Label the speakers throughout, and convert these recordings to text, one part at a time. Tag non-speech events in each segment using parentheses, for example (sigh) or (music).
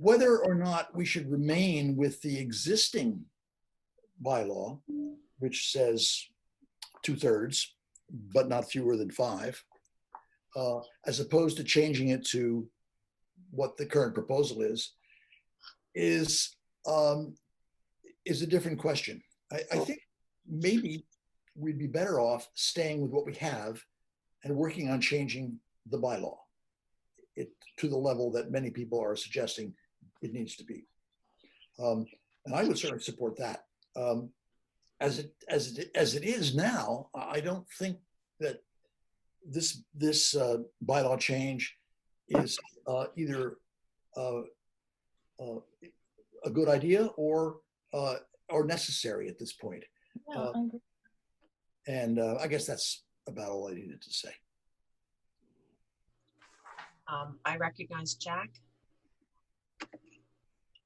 Speaker 1: whether or not we should remain with the existing bylaw, which says two thirds, but not fewer than five, uh, as opposed to changing it to what the current proposal is, is um, is a different question. I, I think maybe we'd be better off staying with what we have and working on changing the bylaw it to the level that many people are suggesting it needs to be. Um, and I would certainly support that. Um, as it as it as it is now, I I don't think that this this uh, bylaw change is uh, either uh, uh, a good idea or uh, or necessary at this point. Uh, And uh, I guess that's about all I needed to say.
Speaker 2: Um, I recognize Jack.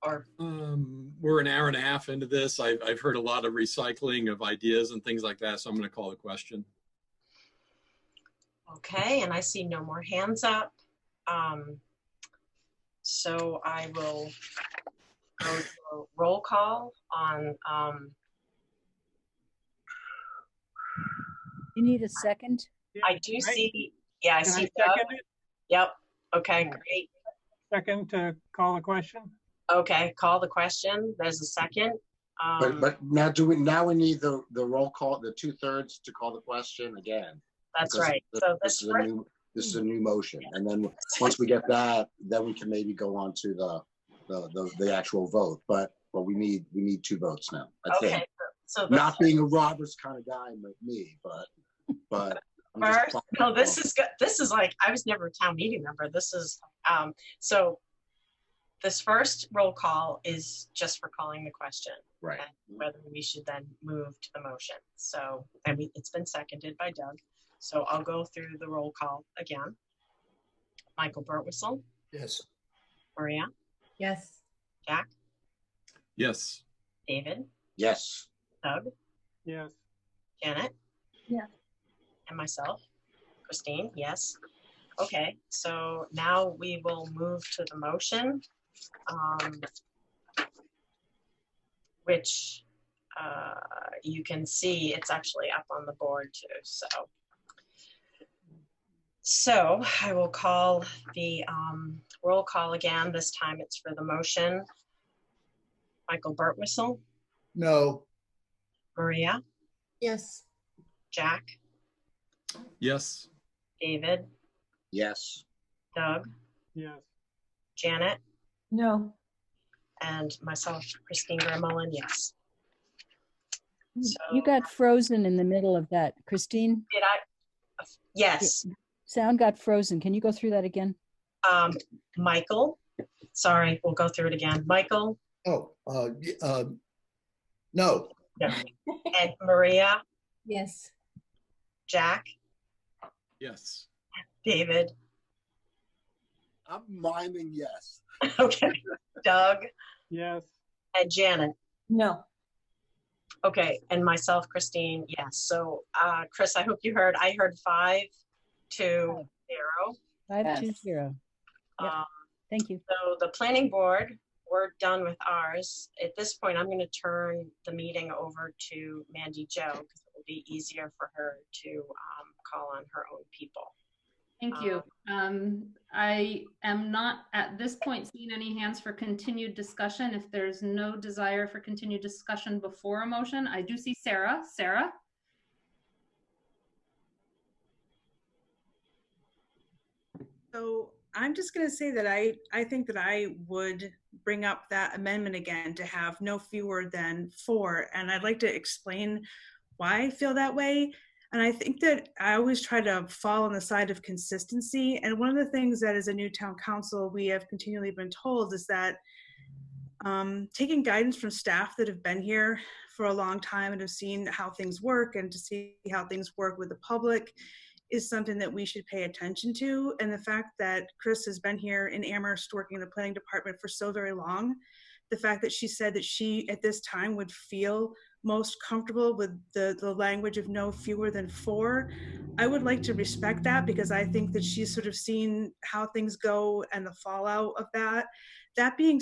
Speaker 2: Or,
Speaker 3: Um, we're an hour and a half into this. I've, I've heard a lot of recycling of ideas and things like that, so I'm going to call the question.
Speaker 2: okay, and I see no more hands up. Um, so I will go to a roll call on, um,
Speaker 4: You need a second?
Speaker 2: I do see, yeah, I
Speaker 5: Can I
Speaker 2: see Doug.
Speaker 5: second it?
Speaker 2: Yep, okay, great.
Speaker 5: Second to call a question?
Speaker 2: Okay, call the question. There's a second.
Speaker 6: But,
Speaker 2: Um,
Speaker 6: but now do we, now we need the, the roll call, the two thirds to call the question again.
Speaker 2: that's
Speaker 6: because
Speaker 2: right.
Speaker 6: th-
Speaker 2: So
Speaker 6: This
Speaker 2: this,
Speaker 6: is a new, this is a new motion. And then, once we get that, then we can maybe go on to the, the, the, the actual vote. But, but we need, we need two votes now, I
Speaker 2: okay,
Speaker 6: think.
Speaker 2: so this,
Speaker 6: Not being a Roberts kind of guy like me, but, but. I'm just
Speaker 2: First, no,
Speaker 6: following
Speaker 2: this is good. This is like, I was never a town meeting member. This is, um, so this first roll call is just for calling the question,
Speaker 6: Right.
Speaker 2: whether we should then move to the motion. So, I mean, it's been seconded by Doug. So I'll go through the roll call again. Michael Burtwistle,
Speaker 1: Yes.
Speaker 2: Maria,
Speaker 7: Yes.
Speaker 3: Yes.
Speaker 2: David,
Speaker 6: Yes,
Speaker 2: Doug,
Speaker 5: Yes.
Speaker 2: Janet?
Speaker 4: Yeah.
Speaker 2: And myself, Christine, yes. Okay, so now we will move to the motion. um, Which uh, you can see, it's actually up on the board too, so. So I will call the um, roll call again. This time it's for the motion. Michael Burtwistle,
Speaker 1: No.
Speaker 2: Maria,
Speaker 7: Yes.
Speaker 2: Jack,
Speaker 3: Yes.
Speaker 2: David,
Speaker 6: yes.
Speaker 2: Doug,
Speaker 5: Yes.
Speaker 2: Janet,
Speaker 7: No.
Speaker 2: and myself, Christine Grimmullen, yes.
Speaker 4: You
Speaker 2: So-
Speaker 4: got frozen in the middle of that. Christine,
Speaker 2: Did I? Yes,
Speaker 4: sound got frozen. Can you go through that again?
Speaker 2: um, Michael, sorry, we'll go through it again. Michael,
Speaker 1: Oh. Uh, y- uh, no.
Speaker 2: and Maria,
Speaker 7: Yes.
Speaker 2: Jack,
Speaker 3: Yes.
Speaker 2: David, (laughs)
Speaker 6: I'm miming yes.
Speaker 2: okay, Doug,
Speaker 5: Yes.
Speaker 2: and Janet.
Speaker 7: No.
Speaker 2: Okay, and myself, Christine, yes. So, uh, Chris, I hope you heard, I heard five, two, zero.
Speaker 4: Five two
Speaker 8: Yes.
Speaker 4: zero. Yep.
Speaker 2: Um,
Speaker 4: Thank you.
Speaker 2: So the planning board, we're done with ours. At this point, I'm going to turn the meeting over to Mandy Joe because it will be easier for her to um, call on her own people.
Speaker 8: Thank you. Um, I am not at this point seeing any hands for continued discussion. If there's no desire for continued discussion before a motion, I do see Sarah. Sarah?
Speaker 9: So I'm just going to say that I, I think that I would bring up that amendment again to have no fewer than four. And I'd like to explain why I feel that way. And I think that I always try to fall on the side of consistency. And one of the things that as a new town council, we have continually been told is that um, taking guidance from staff that have been here for a long time and have seen how things work and to see how things work with the public is something that we should pay attention to. And the fact that Chris has been here in Amherst working in the planning department for so very long, the fact that she said that she at this time would feel most comfortable with the, the language of no fewer than four. I would like to respect that because I think that she's sort of seen how things go and the fallout of that. That being